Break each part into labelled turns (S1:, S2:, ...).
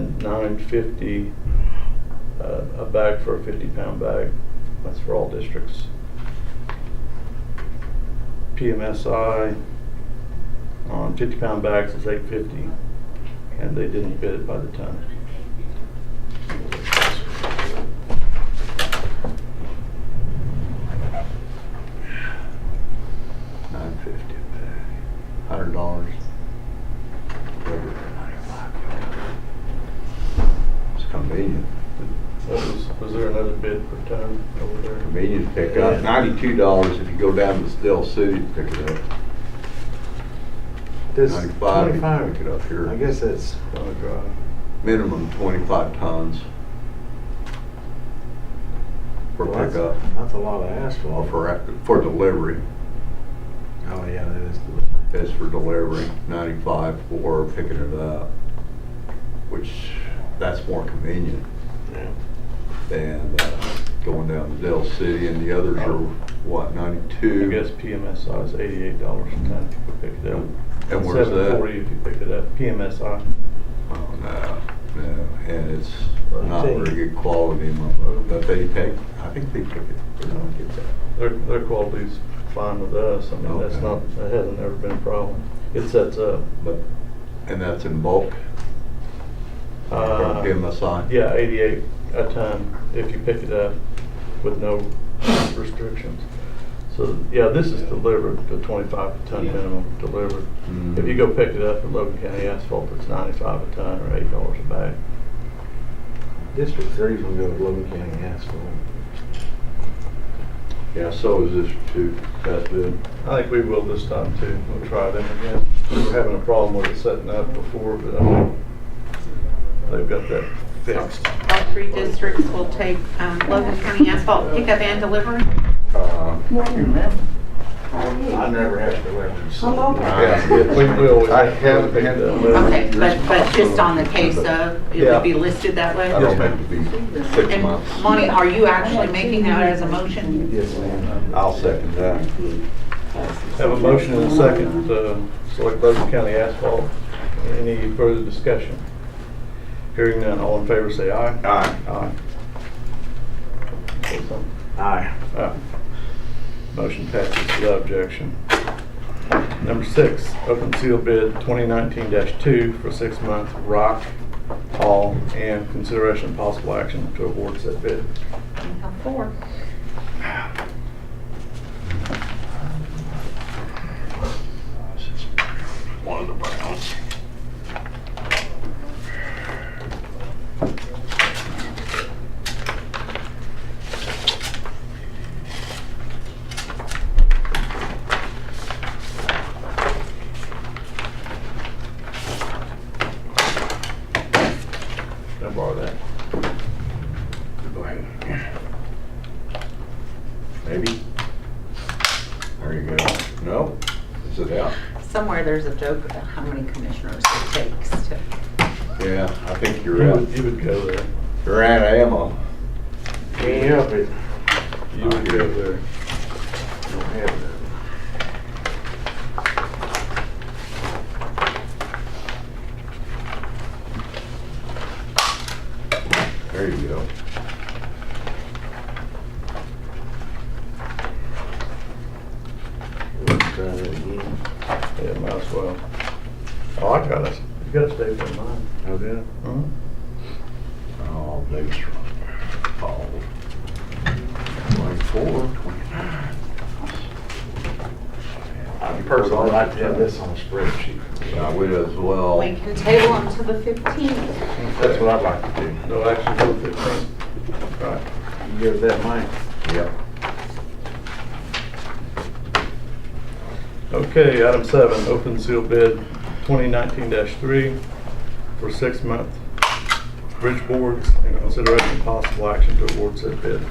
S1: nine fifty, uh, a bag for a fifty pound bag. That's for all districts. PMSI on fifty pound bags is eight fifty, and they didn't bid it by the ton. Nine fifty a bag, hundred dollars.
S2: It's convenient,
S1: Was, was there another bid per ton over there?
S2: convenient to pick up. Ninety-two dollars if you go down to Steel City to pick it up.
S3: Does
S2: Ninety-five if you pick it
S3: twenty-five,
S2: up here.
S3: I guess that's,
S1: On the drive.
S2: Minimum twenty-five tons. For
S3: well, that's,
S2: pickup,
S3: that's a lot of
S2: or
S3: asphalt.
S2: for, ac- for delivery.
S3: Oh, yeah, that is.
S2: That's for delivery, ninety-five for picking it up, which, that's more convenient
S3: yeah.
S2: than uh, going down to Dell City. And the others are, what,
S1: I
S2: ninety-two?
S1: guess PMSI is eighty-eight dollars a ton if you pick it up.
S2: And where's that?
S1: Seven forty if you pick it up, PMSI.
S2: Oh, no, no, and it's
S3: Well, I'm
S2: not
S3: saying-
S2: very good quality, in my book, but they take, I think they took it, they don't get that.
S1: Their, their quality's fine with us, I mean, that's
S2: Okay.
S1: not, that hasn't ever been a problem. It sets up.
S2: But, and that's in bulk,
S1: Uh,
S2: from PMSI?
S1: Yeah, eighty-eight a ton if you pick it up with no restrictions. So, yeah, this is delivered, the twenty-five ton minimum delivered.
S2: Mhm.
S1: If you go pick it up at Logan County Asphalt, it's ninety-five a ton or eight dollars a bag.
S3: District three's gonna go to Logan County asphalt.
S2: Yeah, so is this too, that bid?
S1: I think we will this time too. We'll try them again. We were having a problem with it setting up before, but I think they've got that fixed.
S4: All three districts will take um, Logan County asphalt pickup and delivery.
S2: Uh,
S3: I never have to leverage.
S5: Hello.
S2: Yeah.
S1: We will.
S2: I haven't had that letter.
S4: Okay, but, but just on the case of, it would be listed that way?
S2: I don't have to be six
S4: And
S2: months.
S4: Monty, are you actually making that as a motion?
S3: Yes, ma'am.
S2: I'll second that.
S1: Have a motion and a second uh, to select Logan County asphalt. Any further discussion? Hearing none, all in favor say aye.
S2: Aye.
S1: Aye. Say something.
S3: Aye.
S1: Aye. Motion passes without objection. Number six, open seal bid 2019-2 for six-month rock haul and consideration of possible action to award said bid.
S4: You have four.
S2: One of the browns.
S1: Can I borrow that?
S2: Go ahead. Maybe. There you go. No? Is it out?
S4: Somewhere there's a joke about how many commissioners it takes to.
S2: Yeah, I think
S1: You
S2: you're out.
S1: would- you would go there.
S2: You're out of ammo.
S3: Can't help it.
S1: You would go there.
S3: Don't have none.
S2: There you go.
S3: Let's try that again.
S1: Yeah, might as well. Oh, I got it. You gotta stay for mine.
S3: Okay.
S1: Mhm.
S2: Oh, these are all twenty-four, twenty-nine.
S3: I personally like to have this on a spreadsheet.
S2: I would as well.
S4: We can table them to the 15th.
S3: That's what I'd like to do.
S1: No action till 15. Right.
S3: You Give that mine.
S2: Yep.
S1: Okay, item seven, open seal bid 2019-3 for six-month bridge boards and consideration of possible action to award said bid.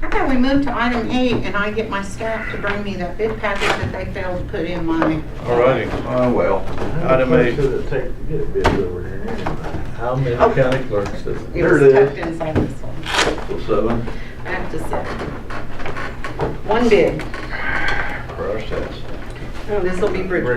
S4: How about we move to item eight and I get my staff to bring me that bid package that they failed to put in my.
S1: All righty.
S2: Oh, well,
S1: Item eight.
S3: Should have taken to get a bid over here anyway.
S1: How many
S4: Oh.
S1: county clerks does?
S4: It
S2: There
S4: was
S2: it is.
S4: tucked inside this one.
S2: so seven,
S4: Back to seven. One bid. Oh,
S2: crush that.
S4: This will be Bridgeport.